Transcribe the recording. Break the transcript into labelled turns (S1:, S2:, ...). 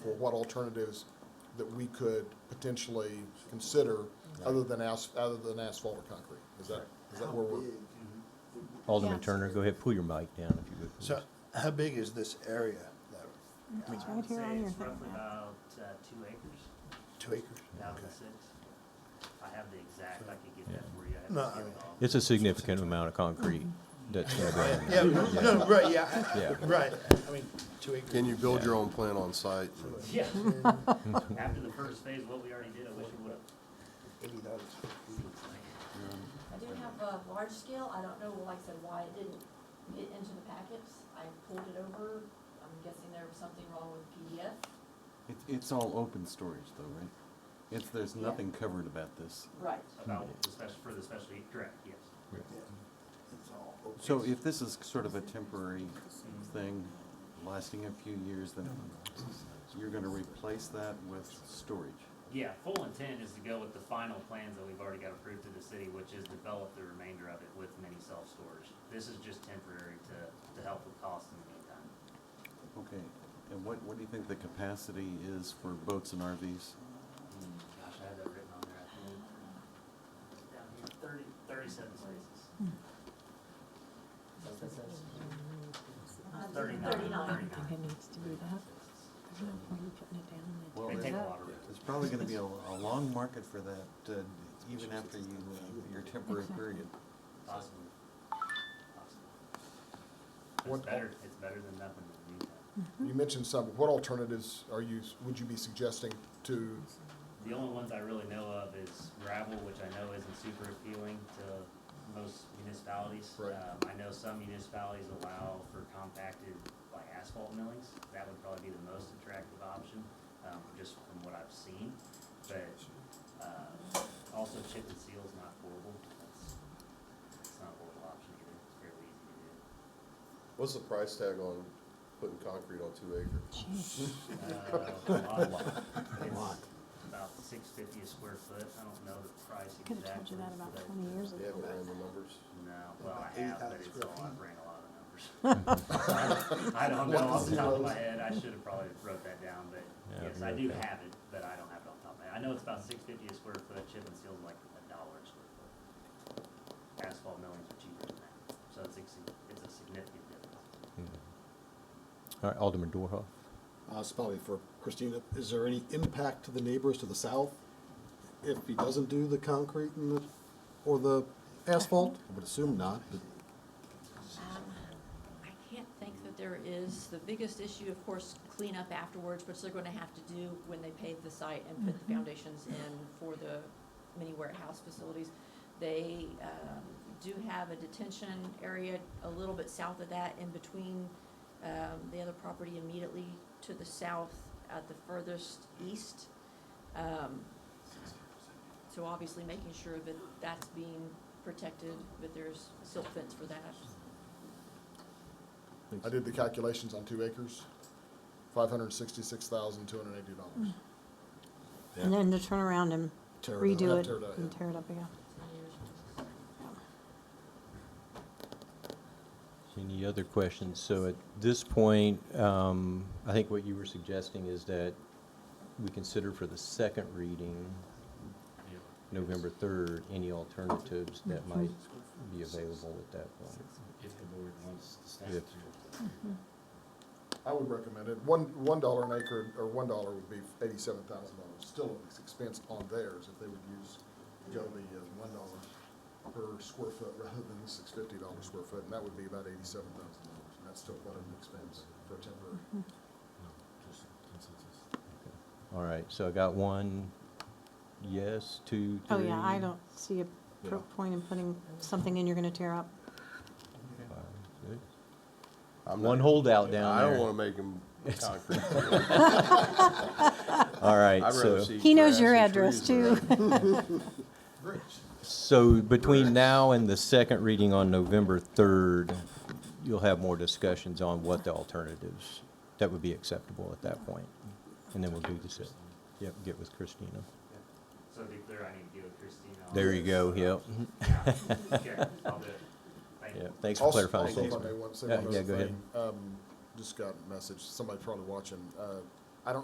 S1: what alternatives that we could potentially consider other than as, other than asphalt or concrete. Is that, is that where we're?
S2: Alderman
S3: Yeah.
S2: Turner, go ahead, pull your mic down if you would. please.
S4: So how big is this area? that- I mean,
S5: It's
S3: I
S5: right
S3: would
S5: here on
S3: say
S5: your
S3: it's
S5: thing.
S3: roughly about uh, two acres,
S4: Two acres?
S3: thousand
S4: Okay.
S3: six. I have the exact, I could get that for you. I
S4: No,
S3: haven't
S4: I
S3: skipped
S4: mean-
S3: off.
S2: It's a significant amount of concrete that's gonna go in.
S4: Yeah, no, right, yeah, I-
S2: Yeah.
S4: right. I mean, two acres.
S6: Can you build your own plant on site?
S3: Yeah. After the first phase, what we already did, I wish we would
S4: Eighty dollars.
S3: have.
S7: I do have a large scale, I don't know, like I said, why it didn't get into the packets, I pulled it over, I'm guessing there was something wrong with PDF.
S8: It, it's all open storage though, right? It's, there's nothing covered about this.
S7: Right.
S3: About the special, for the special, correct, yes.
S8: So if this is sort of a temporary thing, lasting a few years, then you're gonna replace that with storage.
S3: Yeah, full intent is to go with the final plans that we've already got approved through the city, which is develop the remainder of it with mini self-storage. This is just temporary to, to help with costs in the meantime.
S8: Okay, and what, what do you think the capacity is for boats and RVs?
S3: Gosh, I had that written on there, I think. Down here, thirty, thirty-seven spaces. Is that what that says?
S5: Uh,
S3: Thirty-nine.
S7: Thirty-nine.
S5: I think it needs to be that. There's no point in putting it down and then
S8: Well,
S3: They take a
S8: it-
S3: lot of risk.
S8: There's probably gonna be a, a long market for that, uh, even after you, uh, your temporary
S5: Exactly.
S8: period.
S3: Possibly. Possibly. But
S1: What-
S3: It's better, it's better than nothing in the meantime.
S1: You mentioned some, what alternatives are you, would you be suggesting to,
S3: The only ones I really know of is gravel, which I know isn't super appealing to most municipalities.
S1: Right.
S3: Um, I know some municipalities allow for compacted, like asphalt millings. That would probably be the most attractive option, um, just from what I've seen. But, uh, also chip and seal's not horrible. That's, it's not a horrible option either. It's fairly easy to do.
S6: What's the price tag on putting concrete on two acres?
S5: Jeez.
S3: Uh, a lot. It's About six fifty a square foot, I don't know the price
S5: I
S3: exactly.
S5: could have told you that about
S3: but-
S5: twenty years ago.
S6: Do you have a random numbers?
S3: No, well, I have, but
S4: 80,000
S3: it's
S4: square
S3: all,
S4: feet.
S3: I ran a lot of numbers. I don't know off the top of my head, I should have probably wrote that down, but
S2: Yeah,
S3: yes,
S2: you
S3: I
S2: wrote
S3: do
S2: that.
S3: have it, but I don't have it off the top of my head. I know it's about six fifty a square foot, chip and seal's like a dollar a square foot. Asphalt millings are cheaper than that, so it's, ex- it's a significant difference.
S2: All right, Alderman Dorhoff.
S9: Uh, it's probably for Christina, is there any impact to the neighbors to the south if he doesn't do the concrete and the, or the asphalt? I would assume not, but
S7: Um, I can't think that there is, the biggest issue, of course, cleanup afterwards, which they're gonna have to do when they pave the site and put the foundations in for the mini warehouse facilities. They, um, do have a detention area a little bit south of that, in between, um, the other property immediately to the south at the furthest east. Um, so obviously making sure that that's being protected, that there's a silt fence for that.
S1: I did the calculations on two acres, five hundred and sixty-six thousand, two hundred and eighty dollars.
S5: And then to turn around and
S9: Tear it up.
S5: redo it
S1: Tear it up,
S5: and
S1: yeah.
S5: tear it up again.
S2: Any other questions? So at this point, um, I think what you were suggesting is that we consider for the second reading, November third, any alternatives that
S5: Mm-hmm.
S2: might be available at that point.
S10: if the board wants the staff
S2: If-
S10: to.
S1: I would recommend it. One, one dollar an acre, or one dollar would be eighty-seven thousand dollars, still an expense on theirs if they would use, go the uh, one dollar per square foot rather than the six fifty dollar square foot, and that would be about eighty-seven thousand dollars. And that's still quite an expense for a temporary.
S10: Just consensus.
S2: All right, so I got one, yes, two,
S5: Oh,
S2: three.
S5: yeah, I don't see a pro- point in putting something in you're gonna tear up.
S2: five, six.
S6: I'm
S2: One
S6: not-
S2: holdout down
S6: I don't
S2: there.
S6: wanna make them concrete.
S2: All right,
S6: I'd rather
S2: so-
S6: see
S5: He knows
S6: grass
S5: your
S6: and
S5: address
S6: trees
S5: too.
S6: around.
S2: So between now and the second reading on November 3rd, you'll have more discussions on what the alternatives that would be acceptable at that point. And then we'll do this, yep, get with Christina.
S3: So to be clear, I need to deal with Christina. on
S2: There you
S3: this.
S2: go, yep.
S3: Yeah, Okay, I'll do it. Thank you.
S2: Yep, thanks for
S1: Also-
S2: clarifying.
S1: Also, if I
S2: things,
S1: may
S2: man.
S1: want to say
S2: Yeah,
S1: one
S2: yeah,
S1: other
S2: go ahead.
S1: thing, um, just got a message, somebody probably watching, uh,